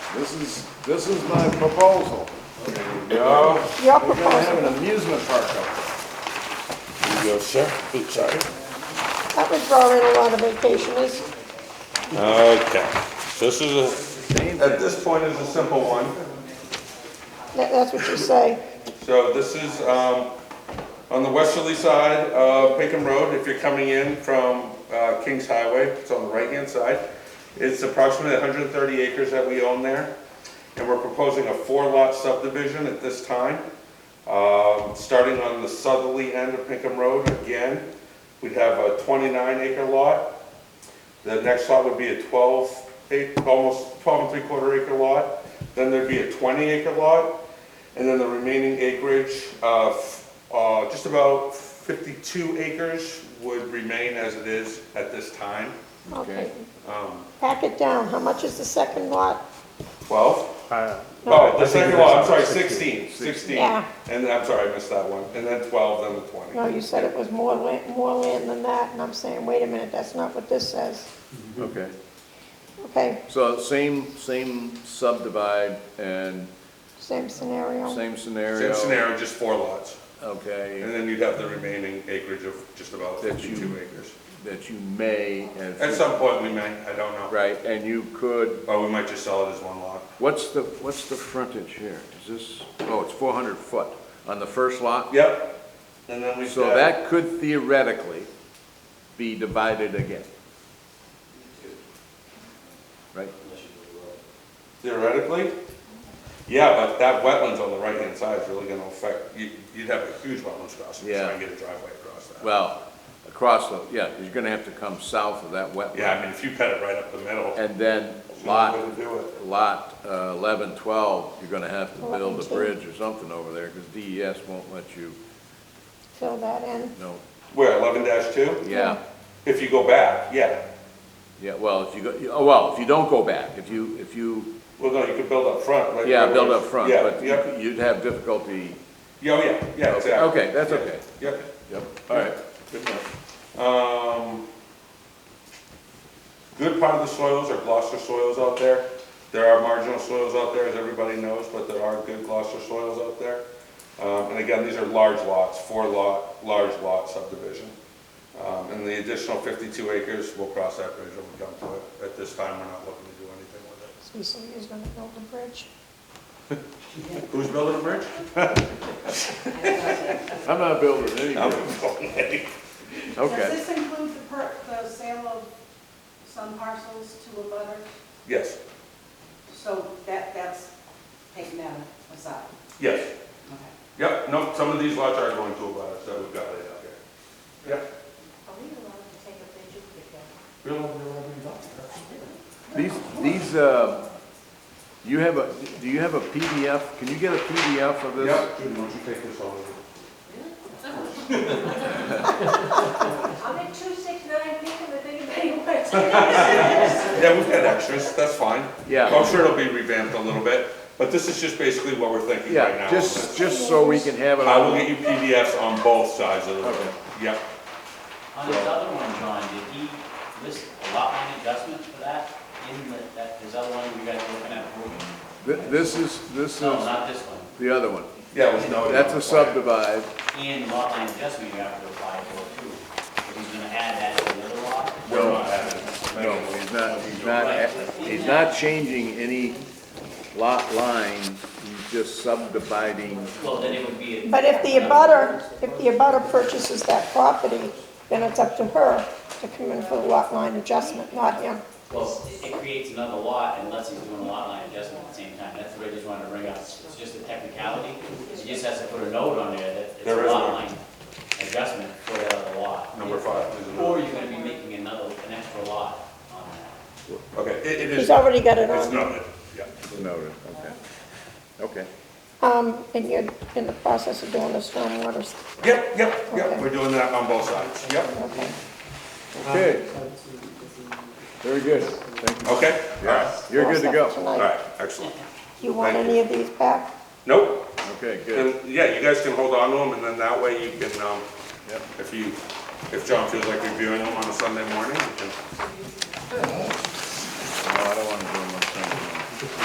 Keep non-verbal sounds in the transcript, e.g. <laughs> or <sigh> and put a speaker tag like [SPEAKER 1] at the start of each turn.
[SPEAKER 1] This is, this is my proposal.
[SPEAKER 2] No,
[SPEAKER 3] Your
[SPEAKER 1] We're gonna
[SPEAKER 3] proposal,
[SPEAKER 1] have an amusement park up
[SPEAKER 2] you go, sir. Oops, sorry.
[SPEAKER 3] that would draw in a lot of vacationers.
[SPEAKER 2] Okay, so this is
[SPEAKER 1] there.
[SPEAKER 2] a, at this point is a simple one.
[SPEAKER 3] That- That's what you say.
[SPEAKER 2] So this is, um, on the westerly side of Pinkham Road, if you're coming in from, uh, Kings Highway, it's on the right-hand side. It's approximately hundred and thirty acres that we own there, and we're proposing a four-lot subdivision at this time. Um, starting on the southerly end of Pinkham Road again, we'd have a twenty-nine acre lot. The next lot would be a twelve, eight, almost twelve and three-quarter acre lot. Then there'd be a twenty acre lot, and then the remaining acreage, uh, f- uh, just about 52 acres would remain as it is at this time.
[SPEAKER 3] Okay.
[SPEAKER 2] Um,
[SPEAKER 3] Pack it down. How much is the second lot?
[SPEAKER 2] 12?
[SPEAKER 4] Uh,
[SPEAKER 2] Oh,
[SPEAKER 4] I
[SPEAKER 2] the
[SPEAKER 4] think
[SPEAKER 2] second
[SPEAKER 4] it
[SPEAKER 2] lot, I'm
[SPEAKER 4] is
[SPEAKER 2] sorry,
[SPEAKER 4] 16.
[SPEAKER 2] 16, 16.
[SPEAKER 3] Yeah.
[SPEAKER 2] And I'm sorry, I missed that one. And then 12, then the 20.
[SPEAKER 3] No, you said it was more land, more land than that, and I'm saying, wait a minute, that's not what this says.
[SPEAKER 1] Okay.
[SPEAKER 3] Okay,
[SPEAKER 1] So same, same subdivide and
[SPEAKER 3] same scenario.
[SPEAKER 1] same scenario.
[SPEAKER 2] Same scenario, just four lots. And
[SPEAKER 1] Okay,
[SPEAKER 2] then you'd have the remaining acreage of just about
[SPEAKER 1] That you-
[SPEAKER 2] 52 acres.
[SPEAKER 1] that you may and.
[SPEAKER 2] At some point, we may, I don't know.
[SPEAKER 1] Right, and you could,
[SPEAKER 2] Or Oh, we might just sell it as one lot.
[SPEAKER 1] what's the, what's the frontage here? Is this, oh, it's four hundred foot on the first lot?
[SPEAKER 2] Yep. And then we.
[SPEAKER 1] So that could theoretically be divided again. Right?
[SPEAKER 2] Theoretically? Yeah, but that wetlands on the right-hand side is really gonna affect, you, you'd have a huge wetlands crossing, to try
[SPEAKER 1] Yeah.
[SPEAKER 2] and get a driveway across that.
[SPEAKER 1] Well, across the, yeah, you're gonna have to come south of that wetland.
[SPEAKER 2] Yeah, I mean, if you cut it right up the middle,
[SPEAKER 1] And then
[SPEAKER 2] there's
[SPEAKER 1] lot,
[SPEAKER 2] no way to do it.
[SPEAKER 1] lot uh, eleven, twelve, you're gonna have to build a
[SPEAKER 3] 11, 12.
[SPEAKER 1] bridge or something over there, because DES won't let you,
[SPEAKER 3] Fill that in.
[SPEAKER 1] no,
[SPEAKER 2] Where, eleven two?
[SPEAKER 1] yeah,
[SPEAKER 2] If you go back, yeah,
[SPEAKER 1] yeah, well, if you go, oh, well, if you don't go back, if you, if you,
[SPEAKER 2] well, no, you could build up front, like.
[SPEAKER 1] yeah, build up front,
[SPEAKER 2] Yeah,
[SPEAKER 1] but
[SPEAKER 2] yep, Oh,
[SPEAKER 1] you'd have difficulty,
[SPEAKER 2] yeah, oh, yeah, yeah,
[SPEAKER 1] Okay,
[SPEAKER 2] exactly.
[SPEAKER 1] okay, that's
[SPEAKER 2] Yeah,
[SPEAKER 1] okay.
[SPEAKER 2] Yep,
[SPEAKER 1] yep, all right.
[SPEAKER 2] good enough. Um, good part of the soils are Gloucester soils out there. There are marginal soils out there, as everybody knows, but there are good Gloucester soils out there. Um, and again, these are large lots, four lot, large lot subdivision. Um, and the additional fifty-two acres, we'll cross that bridge when we come to it. At this time, we're not looking to do anything with it.
[SPEAKER 3] So you say you're gonna build a bridge?
[SPEAKER 2] Who's building a bridge?
[SPEAKER 1] I'm not building any
[SPEAKER 2] I'm
[SPEAKER 1] bridge,
[SPEAKER 2] building it.
[SPEAKER 1] okay,
[SPEAKER 5] Does this include the per, the sale of some parcels to a butter?
[SPEAKER 2] <laughs> Yes,
[SPEAKER 5] So that, that's taken out aside,
[SPEAKER 2] yes.
[SPEAKER 5] okay.
[SPEAKER 2] Yep, no, some of these lots are going to a butters that we've got laid out here. Yep.
[SPEAKER 5] Are we allowed to take a picture with that?
[SPEAKER 2] Real, real, real.
[SPEAKER 1] these, these, uh, you have a, do you have a PDF, can you get a PDF of this?
[SPEAKER 2] Yep, Judy, why don't you take this over?
[SPEAKER 5] I'm at two six nine, thinking that anybody wants <laughs> to.
[SPEAKER 2] Yeah, we've had extras, that's fine.
[SPEAKER 1] Yeah.
[SPEAKER 2] I'm sure it'll be revamped a little bit, but this is just basically what we're thinking right
[SPEAKER 1] Yeah,
[SPEAKER 2] now.
[SPEAKER 1] just, just so we can have it
[SPEAKER 2] I will
[SPEAKER 1] on,
[SPEAKER 2] get you PDFs on both sides of the road. Yep,
[SPEAKER 6] On his other one, John, did he list a lot line adjustment for that in the, that, his other one you guys were looking at? approving?
[SPEAKER 1] Th- this is, this is
[SPEAKER 6] No, not this one.
[SPEAKER 1] the other one,
[SPEAKER 2] yeah, it was noted.
[SPEAKER 1] that's a subdivide,
[SPEAKER 6] And lot line adjustment you have to apply for too. If he's gonna add that to the other lot?
[SPEAKER 2] We're not having it.
[SPEAKER 1] No, he's not, he's not, he's not changing any lot line, he's just subdividing.
[SPEAKER 6] Well, then it would be. a-
[SPEAKER 3] But if the abutter, if the abutter purchases that property, then it's up to her to come in for the lot line adjustment, not him.
[SPEAKER 6] Well, it- it creates another lot unless he's doing a lot line adjustment at the same time. That's what I just wanted to bring up. It's just a technicality. He just has to put a note on there that it's
[SPEAKER 2] There
[SPEAKER 6] a
[SPEAKER 2] is
[SPEAKER 6] lot
[SPEAKER 2] one.
[SPEAKER 6] line adjustment for that other lot.
[SPEAKER 2] Number five. is another-
[SPEAKER 6] Or you're gonna be making another, an extra lot on that.
[SPEAKER 2] Okay, it, it is,
[SPEAKER 3] He's already got it
[SPEAKER 2] it's
[SPEAKER 3] on,
[SPEAKER 2] noted, yeah.
[SPEAKER 1] Noted, okay. Okay,
[SPEAKER 3] um, and you're in the process of doing the stormwater, st-
[SPEAKER 2] Yep, yep, yep,
[SPEAKER 3] Okay.
[SPEAKER 2] we're doing that on both sides, yep,
[SPEAKER 3] okay.
[SPEAKER 1] okay. Very good, thank you.
[SPEAKER 2] okay, all right,
[SPEAKER 1] You're good to go.
[SPEAKER 2] all
[SPEAKER 3] Tonight.
[SPEAKER 2] right, excellent.
[SPEAKER 3] You want
[SPEAKER 2] Thank
[SPEAKER 3] any of these back?
[SPEAKER 2] Nope,
[SPEAKER 1] Okay, good.
[SPEAKER 2] And, yeah, you guys can hold on to them, and then that way you can, um,
[SPEAKER 1] Yep.
[SPEAKER 2] if you, if John feels like reviewing them on a Sunday morning, you can.
[SPEAKER 1] No, I don't want to